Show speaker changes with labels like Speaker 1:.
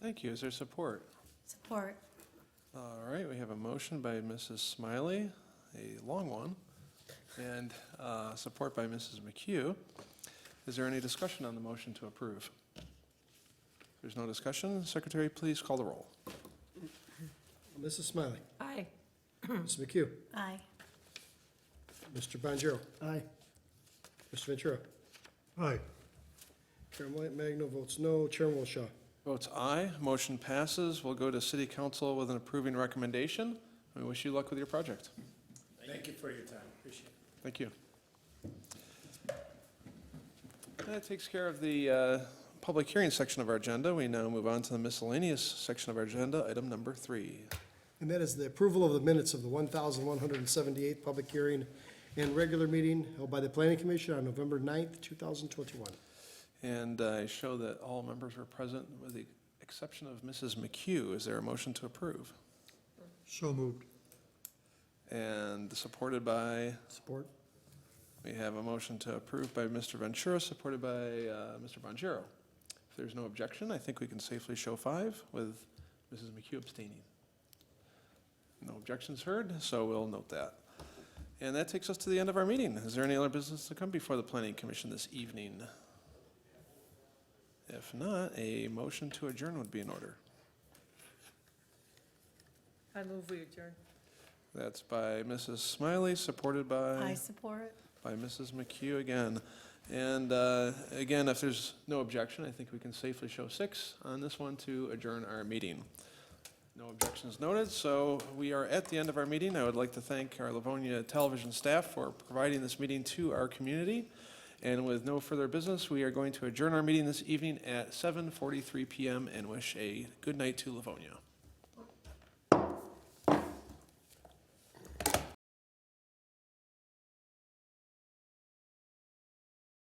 Speaker 1: Thank you. Is there support?
Speaker 2: Support.
Speaker 1: All right, we have a motion by Mrs. Smiley, a long one, and uh, support by Mrs. McHugh. Is there any discussion on the motion to approve? If There's no discussion. Secretary, please call the roll.
Speaker 3: Mrs. Smiley.
Speaker 2: Aye.
Speaker 3: Mrs. McHugh.
Speaker 2: Aye.
Speaker 3: Mr. Bonjero. Aye. Mr. Ventura. Aye. Chair White Magno votes no. Chairman Wilshaw.
Speaker 1: Votes aye, motion passes. We'll go to City Council with an approving recommendation. We wish you luck with your project.
Speaker 4: Thank you for your time, appreciate it.
Speaker 1: Thank you. That takes care of the uh, public hearing section of our agenda. We now move on to the miscellaneous section of our agenda, item number three.
Speaker 3: And that is the approval of the minutes of the 1,178th public hearing and regular meeting held by the Planning Commission on November 9th, 2021.
Speaker 1: And I show that all members are present with the exception of Mrs. McHugh. Is there a motion to approve?
Speaker 3: So moved.
Speaker 1: And supported by,
Speaker 3: Support.
Speaker 1: we have a motion to approve by Mr. Ventura, supported by uh, Mr. Bonjero. If there's no objection, I think we can safely show five with Mrs. McHugh abstaining. No objections heard, so we'll note that. And that takes us to the end of our meeting. Is there any other business to come before the Planning Commission this evening? If not, a motion to adjourn would be in order.
Speaker 5: I move we adjourn.
Speaker 1: That's by Mrs. Smiley, supported
Speaker 2: I
Speaker 1: by,
Speaker 2: support.
Speaker 1: by Mrs. McHugh again. And uh, again, if there's no objection, I think we can safely show six on this one to adjourn our meeting. No objections noted, so we are at the end of our meeting. I would like to thank our Livonia Television staff for providing this meeting to our community. And with no further business, we are going to adjourn our meeting this evening at 7:43 PM and wish a good night to Livonia.